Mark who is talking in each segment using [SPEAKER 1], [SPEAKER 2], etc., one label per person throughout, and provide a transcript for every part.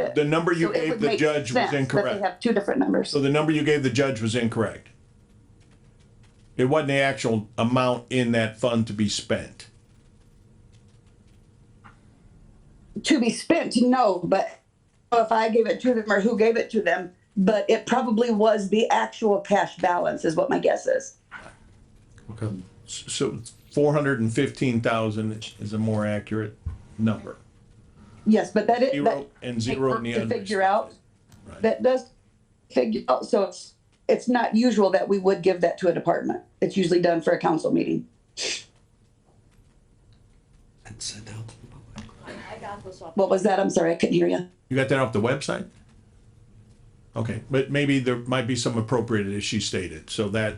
[SPEAKER 1] it.
[SPEAKER 2] The number you
[SPEAKER 1] So it
[SPEAKER 2] gave
[SPEAKER 1] would
[SPEAKER 2] the
[SPEAKER 1] make
[SPEAKER 2] judge was
[SPEAKER 1] sense that
[SPEAKER 2] incorrect.
[SPEAKER 1] They have two different numbers.
[SPEAKER 2] So the number you gave the judge was incorrect. It wasn't the actual amount in that fund to be spent.
[SPEAKER 1] To be spent, no, but if I gave it to them or who gave it to them, but it probably was the actual cash balance is what my guess is.
[SPEAKER 2] Okay. So four hundred and fifteen thousand is a more accurate number.
[SPEAKER 1] Yes, but that is, that
[SPEAKER 2] Zero and
[SPEAKER 1] take
[SPEAKER 2] zero
[SPEAKER 1] work
[SPEAKER 2] in the
[SPEAKER 1] to
[SPEAKER 2] other.
[SPEAKER 1] figure out.
[SPEAKER 2] Right.
[SPEAKER 1] That does figure, out. so it's, it's not usual that we would give that to a department. It's usually done for a council meeting.
[SPEAKER 3] and sent out to the public.
[SPEAKER 4] I got this off.
[SPEAKER 1] What was that? I'm sorry, I couldn't hear you.
[SPEAKER 2] You got that off the website? Okay, but maybe there might be some appropriate as she stated, so that,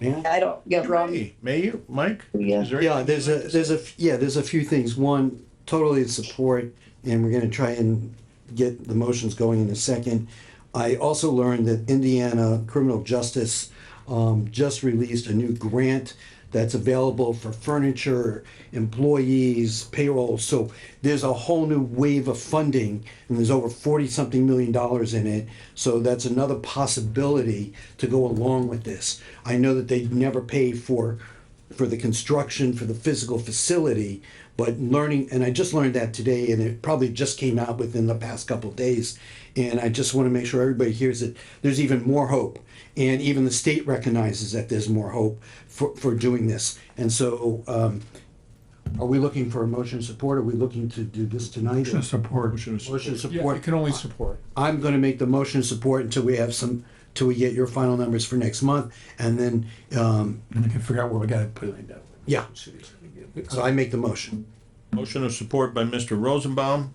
[SPEAKER 2] yeah.
[SPEAKER 1] I don't get wrong.
[SPEAKER 2] Hey, may you, Mike?
[SPEAKER 1] Yeah.
[SPEAKER 2] Is there-
[SPEAKER 3] Yeah, there's a, there's a, f- yeah, there's a few things. One, totally in support, and we're gonna try and get the motions going in a second. I also learned that Indiana Criminal Justice um, just released a new grant that's available for furniture, employees, payroll. So there's a whole new wave of funding, and there's over forty-something million dollars in it. So that's another possibility to go along with this. I know that they never pay for for the construction for the physical facility but learning and i just learned that today and it probably just came out within the past couple of days and i just want to make sure everybody hears it there's even more hope and even the state recognizes that there's more hope for, for doing this and so um, are we looking for a motion of support are we looking to do this tonight
[SPEAKER 5] Motion of support.
[SPEAKER 2] Motion is-
[SPEAKER 3] motion of
[SPEAKER 5] Yeah,
[SPEAKER 3] support
[SPEAKER 5] it can only support.
[SPEAKER 3] I'm gonna make the motion of support until we have some till we get your final numbers for next month and then um,
[SPEAKER 5] And we can figure out where we gotta put it in that.
[SPEAKER 3] yeah so i make the motion
[SPEAKER 2] Motion of support by Mr. Rosenbaum,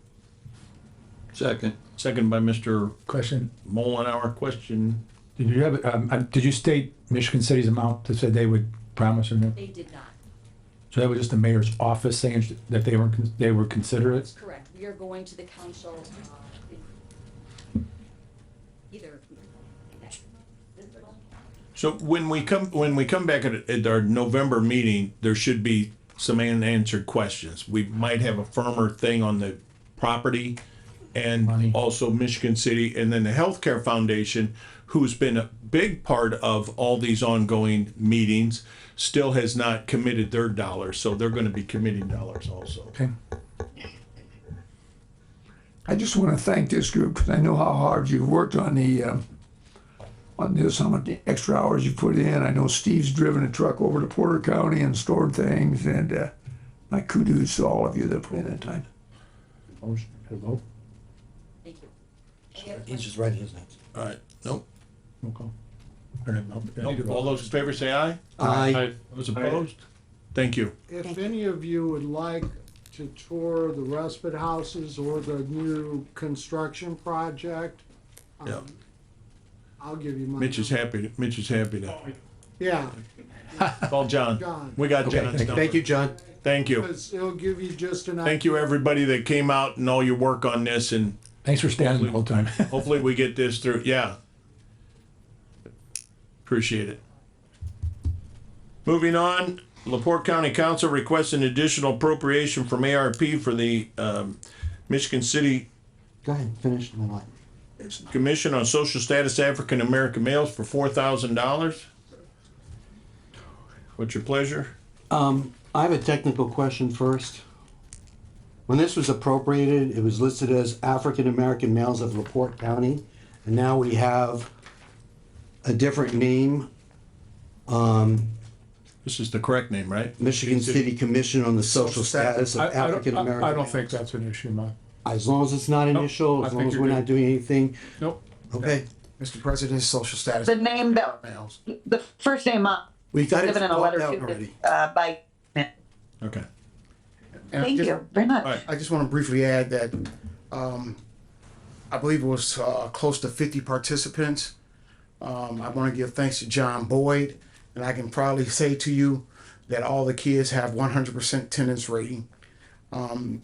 [SPEAKER 6] Second.
[SPEAKER 2] second by Mr.
[SPEAKER 5] Question,
[SPEAKER 2] Mullenhour. Question,
[SPEAKER 5] did you have, um, uh, did you state Michigan City's amount that said they would promise or no?
[SPEAKER 4] They did not.
[SPEAKER 5] So that was just the mayor's office saying sh- that they were, con- they would consider it?
[SPEAKER 4] Correct. We are going to the council, uh, in- either. next-
[SPEAKER 2] So when we come, when we come back at, at our November meeting, there should be some unanswered questions. We might have a firmer thing on the property and also Michigan City and then the Healthcare Foundation, who's been a big part of all these ongoing meetings, still has not committed their dollars, so they're gonna be committing dollars also.
[SPEAKER 5] Okay.
[SPEAKER 7] I just want to thank this group because I know how hard you've worked on the, um, on this, how much extra hours you put in. I know Steve's driven a truck over to Porter County and stored things and, uh, my kudos to all of you that put in that time.
[SPEAKER 5] Motion, had a vote?
[SPEAKER 4] Thank you.
[SPEAKER 3] he's just writing his notes
[SPEAKER 2] All right, nope,
[SPEAKER 5] Roll call. Or no, no, I need a
[SPEAKER 2] nope. All
[SPEAKER 5] vote.
[SPEAKER 2] those in favor say aye.
[SPEAKER 3] Aye.
[SPEAKER 2] Those opposed? Thank you.
[SPEAKER 8] If any of you would like to tour the respite houses or the new construction project, um,
[SPEAKER 2] Yeah.
[SPEAKER 8] I'll give you my.
[SPEAKER 2] Mitch is happy, Mitch is happy to.
[SPEAKER 8] Yeah,
[SPEAKER 2] Call John.
[SPEAKER 8] John.
[SPEAKER 2] We got John's number.
[SPEAKER 3] thank you john
[SPEAKER 2] Thank you.
[SPEAKER 8] 'cause it'll give you just an.
[SPEAKER 2] Thank you, everybody that came out and all your work on this, and
[SPEAKER 5] Thanks for standing the whole time.
[SPEAKER 2] hopefully we get this through. Yeah. Appreciate it. Moving on, Laporte County Council requests an additional appropriation from ARP for the um, Michigan City
[SPEAKER 3] go ahead finish the line
[SPEAKER 2] Commission on Social Status African American Males for four thousand dollars. What's your pleasure?
[SPEAKER 3] Um, I have a technical question first. When this was appropriated, it was listed as African-American males of LaPorte County, and now we have a different name, um,
[SPEAKER 2] This is the correct name, right?
[SPEAKER 3] Michigan City Commission on the Social Status of
[SPEAKER 5] I- I don't- I-
[SPEAKER 3] African-American.
[SPEAKER 5] I don't
[SPEAKER 3] Males.
[SPEAKER 5] think that's an issue, Mike.
[SPEAKER 3] As long as it's not initial,
[SPEAKER 5] I
[SPEAKER 3] as
[SPEAKER 5] think
[SPEAKER 3] long as
[SPEAKER 5] you're
[SPEAKER 3] we're
[SPEAKER 5] good.
[SPEAKER 3] not doing anything,
[SPEAKER 5] Nope.
[SPEAKER 3] okay?
[SPEAKER 9] Mr. President, social status
[SPEAKER 1] The name that,
[SPEAKER 9] males.
[SPEAKER 1] the first name up,
[SPEAKER 3] We got it
[SPEAKER 1] given in a
[SPEAKER 3] spelled
[SPEAKER 1] letter
[SPEAKER 3] out
[SPEAKER 1] to,
[SPEAKER 3] already.
[SPEAKER 1] uh, by,
[SPEAKER 2] Okay.
[SPEAKER 9] And I
[SPEAKER 1] thank
[SPEAKER 9] just-
[SPEAKER 1] you very much.
[SPEAKER 2] right.
[SPEAKER 9] I just want to briefly add that um, I believe it was uh, close to 50 participants. Um, I want to give thanks to John Boyd, and I can proudly say to you that all the kids have 100% attendance rating, um,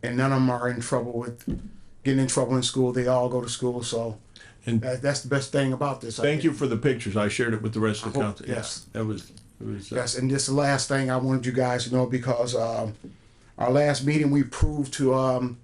[SPEAKER 9] and none of them are in trouble with getting in trouble in school. They all go to school, so
[SPEAKER 2] And-
[SPEAKER 9] that, that's the best thing about this. I
[SPEAKER 2] Thank
[SPEAKER 9] think.
[SPEAKER 2] you for the pictures. I shared it with the rest of the
[SPEAKER 9] hope-
[SPEAKER 2] council.
[SPEAKER 9] yes.
[SPEAKER 2] That was, it was. uh,
[SPEAKER 9] Yes, and this is the last thing I wanted you guys to know because um, our last meeting we proved to um,